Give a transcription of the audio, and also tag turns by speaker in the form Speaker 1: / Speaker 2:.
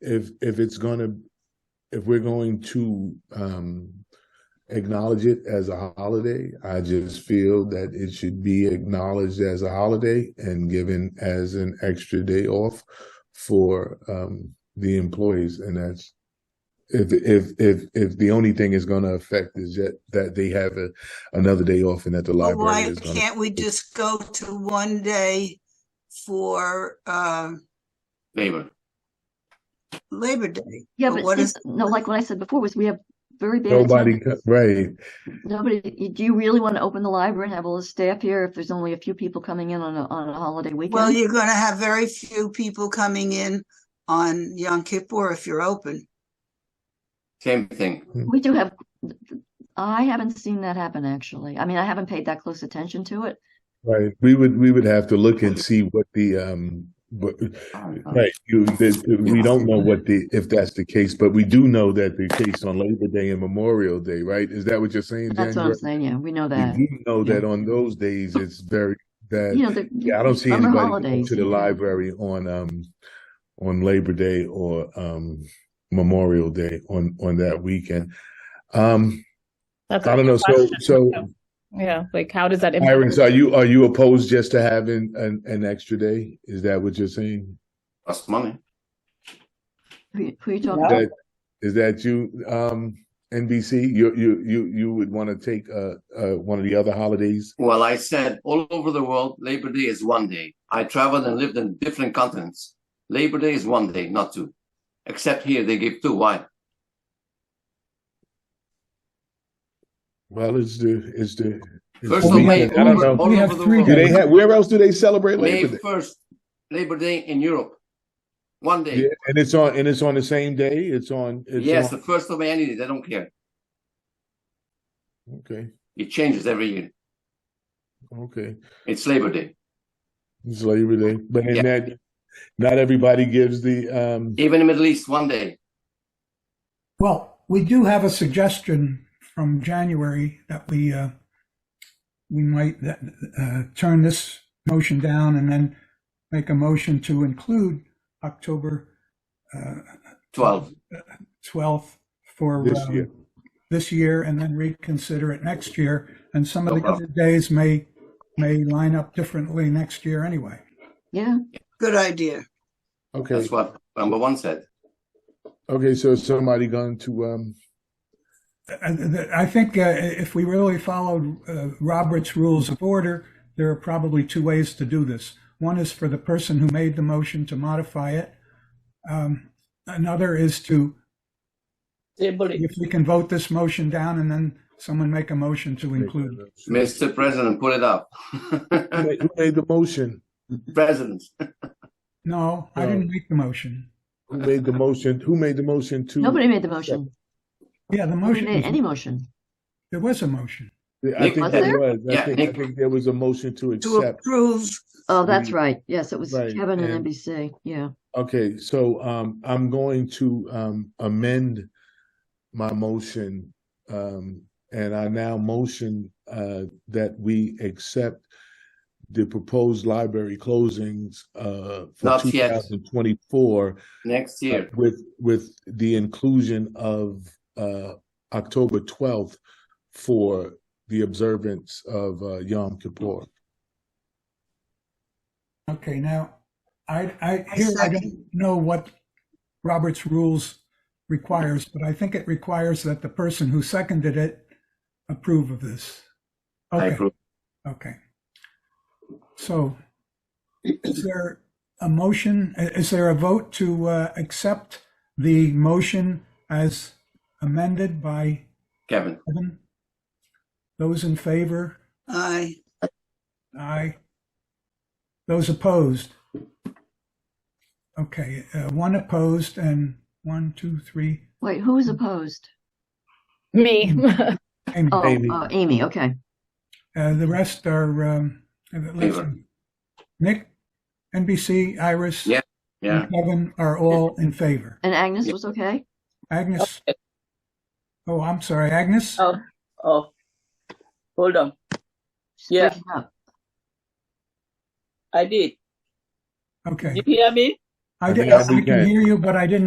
Speaker 1: if if it's gonna if we're going to um acknowledge it as a holiday, I just feel that it should be acknowledged as a holiday and given as an extra day off for um the employees and that's if if if if the only thing is gonna affect is that that they have a another day off and that the
Speaker 2: Well,
Speaker 1: library
Speaker 2: why
Speaker 1: is gonna
Speaker 2: Oh, can't we just go to one day for um
Speaker 3: Labor.
Speaker 2: Labor Day?
Speaker 4: Yeah,
Speaker 2: But
Speaker 4: but
Speaker 2: what
Speaker 4: see,
Speaker 2: is-
Speaker 4: no, like what I said before was we have very bad.
Speaker 1: Nobody,
Speaker 4: attendance.
Speaker 1: co- right,
Speaker 4: Nobody, do you really want to open the library and have all the staff here if there's only a few people coming in on a, on a holiday
Speaker 2: Well,
Speaker 4: weekend?
Speaker 2: you're gonna have very few people coming in on Yom Kippur if you're open.
Speaker 3: Same thing.
Speaker 4: We do have, I haven't seen that happen, actually. I mean, I haven't paid that close attention to it.
Speaker 1: right. We would, we would have to look and see what the, um, what,
Speaker 3: Um,
Speaker 1: right, you, the- the- we don't know what the, if that's the case, but we do know that the case on Labor Day and Memorial Day, right? Is that what you're saying,
Speaker 4: That's what I'm
Speaker 1: January?
Speaker 4: saying, yeah, we know
Speaker 1: We
Speaker 4: that.
Speaker 1: do know that on those days, it's very
Speaker 4: You
Speaker 1: bad.
Speaker 4: know, the.
Speaker 1: Yeah, I don't see
Speaker 4: summer
Speaker 1: anybody going
Speaker 4: holidays,
Speaker 1: to the
Speaker 4: yeah.
Speaker 1: library on, um, on Labor Day or, um, Memorial Day on, on that weekend. Um,
Speaker 5: That's
Speaker 1: I
Speaker 5: a
Speaker 1: don't know, so,
Speaker 5: question.
Speaker 1: so
Speaker 5: Yeah, like how does that impact?
Speaker 1: Irons, are you, are you opposed just to having an, an extra day? Is that what you're saying?
Speaker 3: Plus money.
Speaker 4: Who who you talking
Speaker 1: Is
Speaker 4: about?
Speaker 1: that, is that you, um, NBC? You, you, you, you would want to take, uh, uh, one of the other holidays?
Speaker 3: Well, I said all over the world, Labor Day is one day. I traveled and lived in different continents. Labor Day is one day, not two. Except here, they give two. Why?
Speaker 1: Well, it's the, it's the. it's
Speaker 3: First
Speaker 1: the
Speaker 3: of May,
Speaker 1: weekend. I don't
Speaker 3: all,
Speaker 1: know.
Speaker 3: all
Speaker 6: We
Speaker 3: over
Speaker 6: have
Speaker 3: the
Speaker 6: three
Speaker 3: world.
Speaker 1: Do they have, where else do they celebrate
Speaker 3: May
Speaker 1: Labor Day?
Speaker 3: first, Labor Day in Europe, one day.
Speaker 1: Yeah, and it's on, and it's on the same day? It's on,
Speaker 3: yes,
Speaker 1: it's
Speaker 3: the
Speaker 1: on,
Speaker 3: first of May, any day. They don't care.
Speaker 1: okay,
Speaker 3: It changes every year.
Speaker 1: okay.
Speaker 3: It's Labor Day.
Speaker 1: It's Labor Day, but in
Speaker 3: Yeah.
Speaker 1: that, not everybody gives the, um,
Speaker 3: Even in the Middle East, one day.
Speaker 6: Well, we do have a suggestion from January that we, uh, we might, uh, turn this motion down and then make a motion to include October, uh,
Speaker 3: Twelve.
Speaker 6: 12th for.
Speaker 1: This
Speaker 6: um,
Speaker 1: year.
Speaker 6: This year and then reconsider it next year. And some of
Speaker 3: No
Speaker 6: the other days may, may line up differently next year anyway.
Speaker 4: Yeah,
Speaker 2: Good idea.
Speaker 1: okay.
Speaker 3: That's what number one said.
Speaker 1: Okay, so is somebody going to, um,
Speaker 6: I I think uh, if we really followed uh, Robert's Rules of Order, there are probably two ways to do this. One is for the person who made the motion to modify it. Um, Another is to, if we can vote this motion down and then someone make a motion to include.
Speaker 3: Mr. President, put it up.
Speaker 1: Who made- who made the motion?
Speaker 3: President,
Speaker 6: No, I didn't make the motion.
Speaker 1: Who made the motion? Who made the motion to?
Speaker 4: nobody made the motion.
Speaker 6: Yeah, the
Speaker 4: Nobody
Speaker 6: motion,
Speaker 4: made any
Speaker 6: was-
Speaker 4: motion.
Speaker 6: there was a motion.
Speaker 1: I think
Speaker 3: Was
Speaker 1: there
Speaker 4: there?
Speaker 1: was. I
Speaker 3: Yeah,
Speaker 1: think, I
Speaker 3: Nick.
Speaker 1: think there was a motion to
Speaker 2: To
Speaker 1: accept.
Speaker 2: approve,
Speaker 4: Oh, that's
Speaker 1: Mm.
Speaker 4: right. Yes, it was
Speaker 1: Right,
Speaker 4: Kevin
Speaker 1: and-
Speaker 4: and NBC, yeah.
Speaker 1: Okay, so, um, I'm going to, um, amend my motion. Um, and I now motion, uh, that we accept the proposed library closings, uh, for
Speaker 3: Not
Speaker 1: two
Speaker 3: yet.
Speaker 1: thousand twenty-four.
Speaker 3: next year.
Speaker 1: with with the inclusion of uh October twelfth for the observance of uh, Yom Kippur.
Speaker 6: Okay, now, I, I, here, I don't know what Robert's rules requires, but I think it requires that the person who seconded it approve of this.
Speaker 3: I
Speaker 6: Okay,
Speaker 3: approve.
Speaker 6: okay. So is there a motion, i- is there a vote to uh, accept the motion as amended by
Speaker 3: Kevin,
Speaker 6: Kevin? Those in favor?
Speaker 2: I,
Speaker 6: Aye. Those opposed? Okay, uh, one opposed and one, two, three.
Speaker 4: Wait, who was opposed?
Speaker 5: Me.
Speaker 6: Amy.
Speaker 4: Oh,
Speaker 1: Amy.
Speaker 4: uh, Amy, okay.
Speaker 6: Uh, The rest are, um, uh, let's
Speaker 3: Favor.
Speaker 6: see. Nick, NBC, Iris,
Speaker 3: Yeah.
Speaker 6: and
Speaker 3: yeah.
Speaker 6: Kevin are all in favor.
Speaker 4: And Agnes
Speaker 3: Yeah.
Speaker 4: was okay?
Speaker 6: Agnes, oh, I'm sorry, Agnes?
Speaker 7: Oh, oh, hold on.
Speaker 4: She's
Speaker 7: Yeah.
Speaker 4: breaking up.
Speaker 7: I did.
Speaker 6: Okay.
Speaker 7: You hear me?
Speaker 6: I did-
Speaker 1: Now we
Speaker 6: I
Speaker 1: can.
Speaker 6: can hear you, but I didn't